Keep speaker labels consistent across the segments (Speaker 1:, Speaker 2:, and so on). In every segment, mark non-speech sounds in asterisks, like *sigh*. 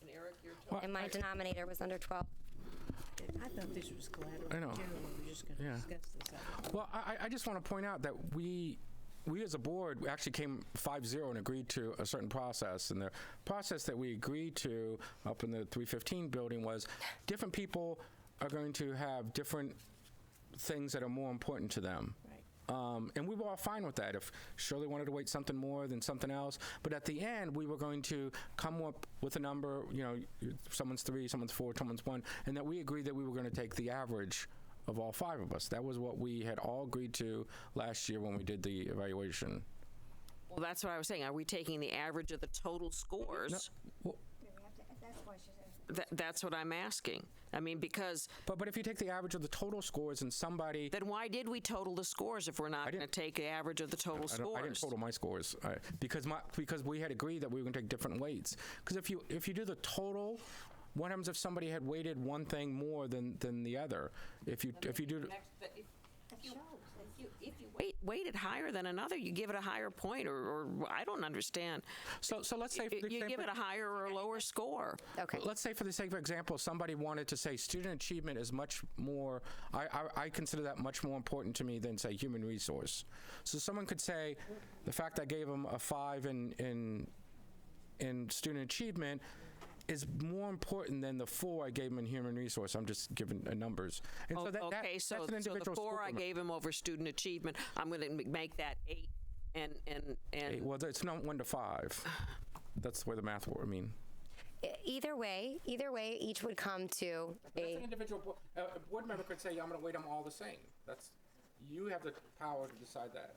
Speaker 1: and Eric, you're
Speaker 2: And my denominator was under 12.
Speaker 3: I thought this was collateral.
Speaker 4: I know.
Speaker 3: General, we were just going to
Speaker 4: Yeah.
Speaker 3: discuss this. I-
Speaker 4: Well, I, I- I just want to point out that we, we as a board we actually came 5-0 and agreed to a certain process. And the process that we agreed to up in the 315 building was different people are going to have different things that are more important to them.
Speaker 3: Right.
Speaker 4: Um, and we were all fine with that. If Shirley wanted to wait something more than something else, but at the end we were going to come up with a number. You know, you- someone's three, someone's four, someone's one, and that we agreed that we were going to take the average of all five of us. That was what we had all agreed to last year when we did the evaluation.
Speaker 1: Well, that's what I was saying. Are we taking the average of the total scores? Tha- That's what I'm asking. I mean, because
Speaker 4: But but if you take the average of the total scores and somebody.
Speaker 1: then why did we total the scores if we're not going to
Speaker 4: didn't-
Speaker 1: take the average of the total
Speaker 4: I, don't, I didn't
Speaker 1: scores?
Speaker 4: total my scores I, because my because we had agreed that we were going to take different weights. Because if you if you do the total, what happens if somebody had weighted one thing more than than the other? If you if you do
Speaker 1: Wait, weighted higher than another, you give it a higher point, or, or I don't understand.
Speaker 4: so so let's say for
Speaker 1: You
Speaker 4: the
Speaker 1: you
Speaker 4: sake
Speaker 1: give it
Speaker 4: of-
Speaker 1: a higher or a lower score.
Speaker 2: Okay.
Speaker 4: Let's say, for the sake of example, somebody wanted to say student achievement is much more, I, I, I consider that much more important to me than, say, human resource. So someone could say, the fact I gave them a five in, in, in student achievement is more important than the four I gave them in human resource. I'm just giving uh, numbers. And so that, that-
Speaker 1: Okay, so,
Speaker 4: that's an
Speaker 1: so the
Speaker 4: individual school
Speaker 1: four I
Speaker 4: permit.
Speaker 1: gave him over student achievement, I'm going to make that eight and, and,
Speaker 4: Hey,
Speaker 1: and,
Speaker 4: Well, it's not one
Speaker 1: *sighs*
Speaker 4: to five. That's the way the math works, I mean.
Speaker 2: E- Either way, either way, each would come to a,
Speaker 4: individual, a board member could say, I'm going to weight them all the same. That's, you have the power to decide that.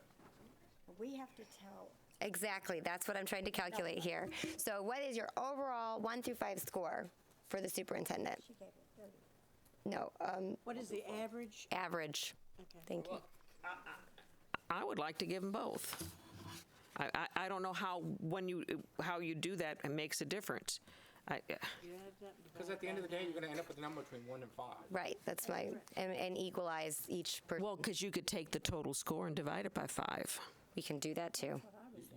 Speaker 3: We have to tell
Speaker 2: exactly, that's what I'm trying to calculate here. So what is your overall 1 through 5 score for the superintendent? No, um,
Speaker 3: What is the average?
Speaker 2: average. Thank you.
Speaker 1: I would like to give them both. I, I, I don't know how, when you, how you do that, it makes a difference. I, uh,
Speaker 4: Because at the end of the day, you're going to end up with a number between one and five.
Speaker 2: Right, that's my, and, and equalize each person.
Speaker 1: well, because you could take the total score and divide it by five.
Speaker 2: We can do that too.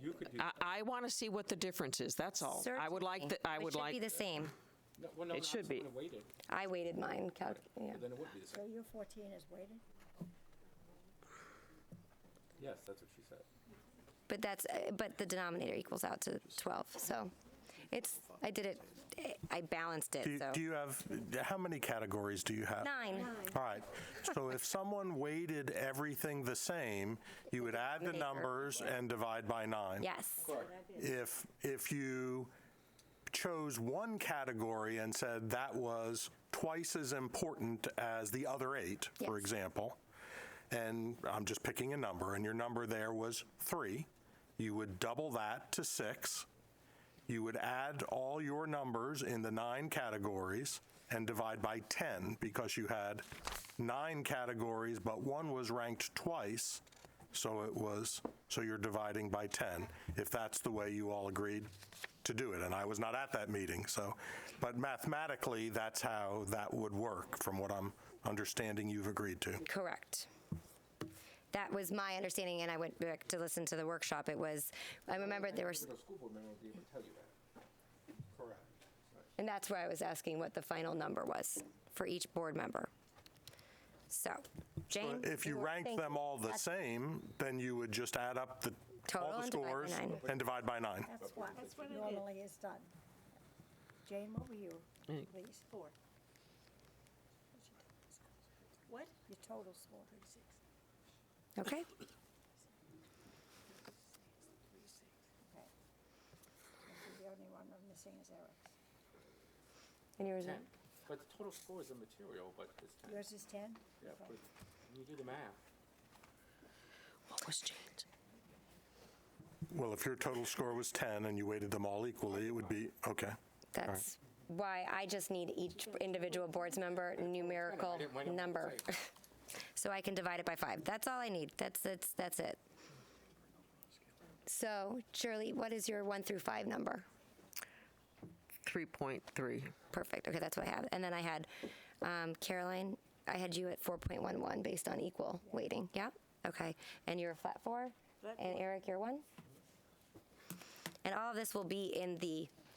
Speaker 4: You could do,
Speaker 1: I, I want to see what the difference is, that's all. I would like,
Speaker 2: Certainly.
Speaker 1: the- I
Speaker 2: But
Speaker 1: would
Speaker 2: It should
Speaker 1: like,
Speaker 2: be the same.
Speaker 4: no, well, no,
Speaker 1: It
Speaker 4: not
Speaker 1: should be.
Speaker 4: someone who waited,
Speaker 2: I weighted mine, calc, yeah.
Speaker 4: then it would be the
Speaker 3: So
Speaker 4: same.
Speaker 3: your 14 is weighted?
Speaker 4: Yes, that's what she said.
Speaker 2: But that's, uh, but the denominator equals out to 12, so it's, I did it, I balanced
Speaker 5: Do
Speaker 2: it,
Speaker 5: you,
Speaker 2: so.
Speaker 5: do you have, how many categories do you have?
Speaker 2: Nine.
Speaker 5: All right. So if someone weighted everything the same, you would add the numbers and divide by nine.
Speaker 2: Yes,
Speaker 5: If, if you chose one category and said that was twice as important as the other eight, for
Speaker 2: Yes.
Speaker 5: example, and I'm just picking a number, and your number there was three, you would double that to six. You would add all your numbers in the nine categories and divide by 10 because you had nine categories, but one was ranked twice. So it was, so you're dividing by 10, if that's the way you all agreed to do it. And I was not at that meeting, so, but mathematically, that's how that would work, from what I'm understanding you've agreed to.
Speaker 2: correct. That was my understanding, and I went back to listen to the workshop. It was, I remember there was,
Speaker 4: The school board member would be able to tell you that. Correct.
Speaker 2: and that's where I was asking what the final number was for each board member. So, Jane?
Speaker 5: If you
Speaker 2: were-
Speaker 5: ranked
Speaker 2: thank
Speaker 5: them
Speaker 2: you.
Speaker 5: all the same, then you would just add up the,
Speaker 2: Total
Speaker 5: all the
Speaker 2: and divide by
Speaker 5: scores
Speaker 2: nine.
Speaker 5: and divide by nine.
Speaker 3: That's what normally is done. Jane, what were you, please? Four. What? Your total score.
Speaker 2: Okay,
Speaker 3: Okay. The only one I'm missing is Eric's.
Speaker 2: and yours?
Speaker 4: Ten. But the total score is immaterial, but it's ten.
Speaker 3: Yours is 10?
Speaker 4: Yeah,
Speaker 3: Okay.
Speaker 4: but when you do the math.
Speaker 1: what was Jane's?
Speaker 5: Well, if your total score was 10 and you weighted them all equally, it would be, okay.
Speaker 2: That's why I just need each individual board's member numerical
Speaker 4: didn't win 'em.
Speaker 2: number. *laughs* So I can divide it by five. That's all I need. That's, that's, that's it. So Shirley, what is your one through five number?
Speaker 1: 3.3.
Speaker 2: Perfect. Okay, that's what I have. And then I had um, Caroline, I had you at 4.11 based on equal weighting. Yeah? Okay. And you're a flat four? and Eric, you're one? And all of this will be in the